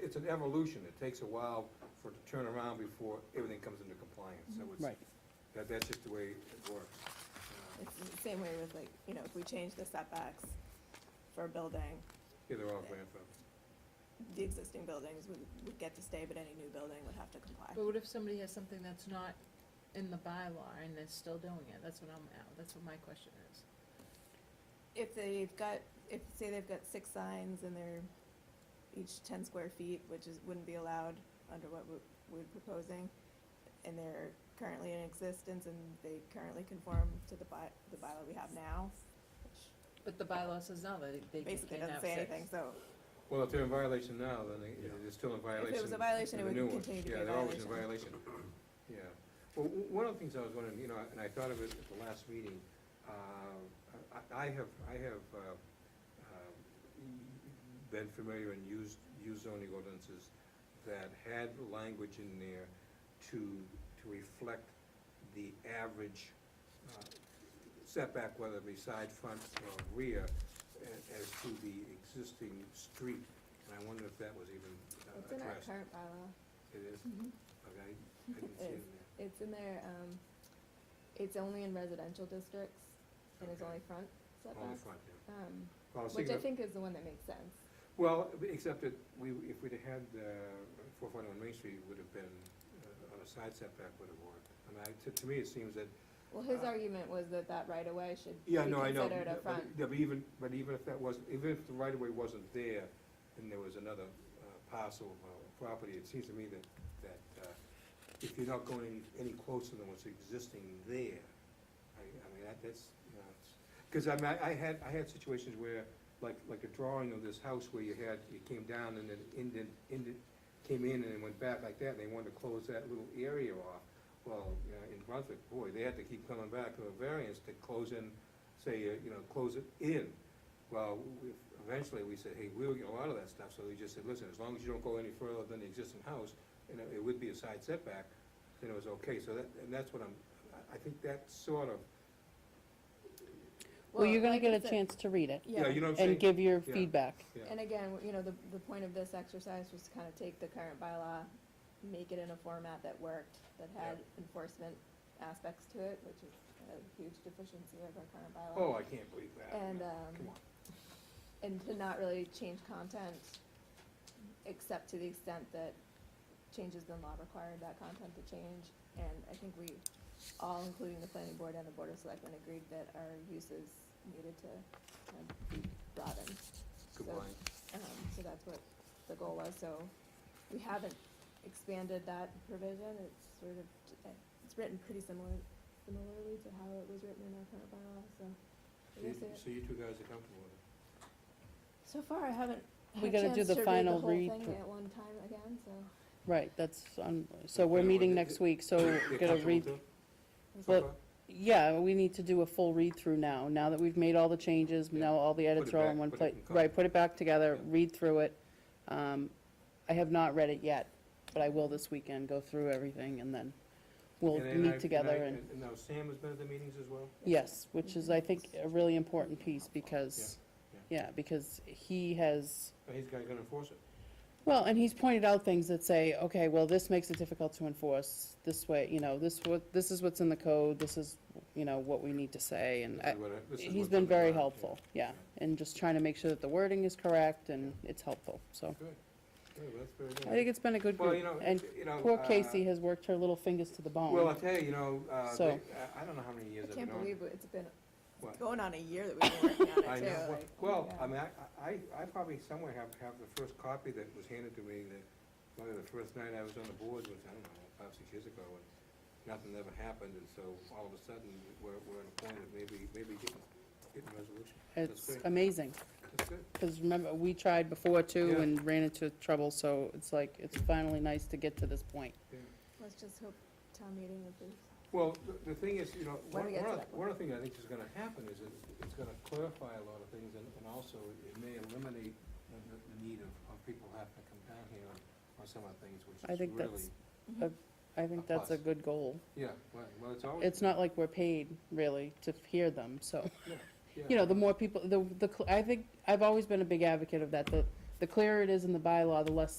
It's an evolution, it takes a while for it to turn around before everything comes into compliance, so it's, Right. that, that's just the way it works. Uh, It's the same way with like, you know, if we change the setbacks for a building, Yeah, they're all grandfathered. the existing buildings would, would get to stay, but any new building would have to comply. But what if somebody has something that's not in the bylaw and they're still doing it? That's what I'm, at- that's what my question is. If they've got, if, say they've got six signs and they're each ten square feet, which is, wouldn't be allowed under what we- we're proposing, and they're currently in existence and they currently conform to the by, the bylaw we have now, which But the bylaw says no, that they they basically can doesn't have say six. anything, so Well, if they're in violation now, then they, they're still in violation. if it was a violation, it of the would new one. continue to be a violation. Yeah, they're always in violation, yeah. Well, w- one of the things I was wondering, you know, and I thought of it at the last meeting, uh, I, I have, I have, uh, um, been familiar and used, used zoning ordinances that had language in there to, to reflect the average uh, setback, whether it be side, front, or rear, a- as to the existing street. And I wonder if that was even uh, It's in our addressed. current bylaw. It is, Mm-hmm. okay, I didn't see it in there. It's in there, um, it's only in residential districts and it's Okay. only front Only setbacks. front, yeah. Um, Well, was which I thinking of- think is the one that makes sense. Well, except that we, if we'd had, uh, four forty-one Main Street would have been, uh, on a side setback would have worked. I mean, I, to, to me, it seems that Well, his Uh, argument was that that right of way should be Yeah, no, I know. considered a but- front. Yeah, but even, but even if that wasn't, even if the right-of-way wasn't there, and there was another uh, parcel of uh, property, it seems to me that, that, uh, if you're not going any any closer than what's existing there, I, I mean, that, that's, you know, it's, because I mean, I- I had, I had situations where, like, like a drawing of this house where you had, you came down and it ended, ended, came in and it went back like that, and they wanted to close that little area off. Well, you know, in Brunswick, boy, they had to keep coming back to a variance to close in, say, uh, you know, close it in. Well, we- eventually, we said, hey, we'll get a lot of that stuff, so they just said, listen, as long as you don't go any further than the existing house, and it- it would be a side setback, then it was okay, so that, and that's what I'm, I- I think that sort of, Well, you're gonna like get I a said- chance to read it yeah, you know what I'm saying? and give your Yeah. feedback. Yeah. And again, w- you know, the, the point of this exercise was to kind of take the current bylaw, make it in a format that worked, that had enforcement aspects to it, which is a huge deficiency of our current bylaw. Oh, I can't believe that. And, um, Come on. and to not really change content, except to the extent that changes in law required that content to change. And I think we all, including the planning board and the board of selectmen, agreed that our uses needed to kind of be broadened. Good So, line. Um, so that's what the goal was, so we haven't expanded that provision, it's sort of, it's written pretty similar, similarly to how it was written in our current bylaw, so. I So you- guess it- So you two guys are comfortable with it? so far, I haven't. We had a gotta do chance the to read final whole read thing through. At one time again, so. Right, that's, um, so we're Okay, meeting well, next it- week, so You're we're gonna comfortable read, too? Well, yeah, we need to do a full read-through now, now that we've made all the changes, Yeah. now all the edits it are all back, in one put it place. in copy. Right, put it back together, Yeah. read through it. Um, I have not read it yet, but I will this weekend, go through everything, and then we'll And- and I- meet together I- and, Now, Sam has been at the meetings as well? yes, which is, I think, a really important piece, because, yeah, because he has, But he's gonna gonna enforce it. Well, and he's pointed out things that say, okay, well, this makes it difficult to enforce this way, you know, this what, this is what's in the code, this is, you know, what we need to say, and This I- is what I- this is he's what's been on the very ground, yeah. helpful, yeah, and just trying to make sure that the wording is correct and it's helpful, so. Good, good, that's very good. I think it's been a good Well, you group, know, Hmm. and you know, poor uh, Casey has worked her little fingers to the Well, I'll bone. tell you, you know, uh, So- they- I- I don't know how many years I I've can't been on. believe it's been, What? it's going on a year that we've been working on I it too, know. like, oh my Well, God. I mean, I, I, I probably somewhere have, have the first copy that was handed to me, that, probably the first night I was on the board was, I don't know, five, six years ago, and nothing ever happened, and so all of a sudden, we're, we're at a point of maybe, maybe getting, getting resolution. That's It's great. amazing, That's good. because remember, we tried before too Yeah. and ran into trouble, so it's like, it's finally nice to get to this point. Let's just hope town meeting approves. Well, the, the thing is, you know, When one, we get one to of, that one of the things I think is gonna happen is it, it's gonna clarify a lot of things and, and also it may eliminate the, the the need of, of people having to come down here on, on some of the things, which is I really. think that's, Mm-hmm. I think A that's a plus. good goal. Yeah, right, well, it's always. it's not like we're paid really to hear them, so, yeah. you know, the more people, the, the, cl- I think, I've always been a big advocate of that, the, the clearer it is in the bylaw, the less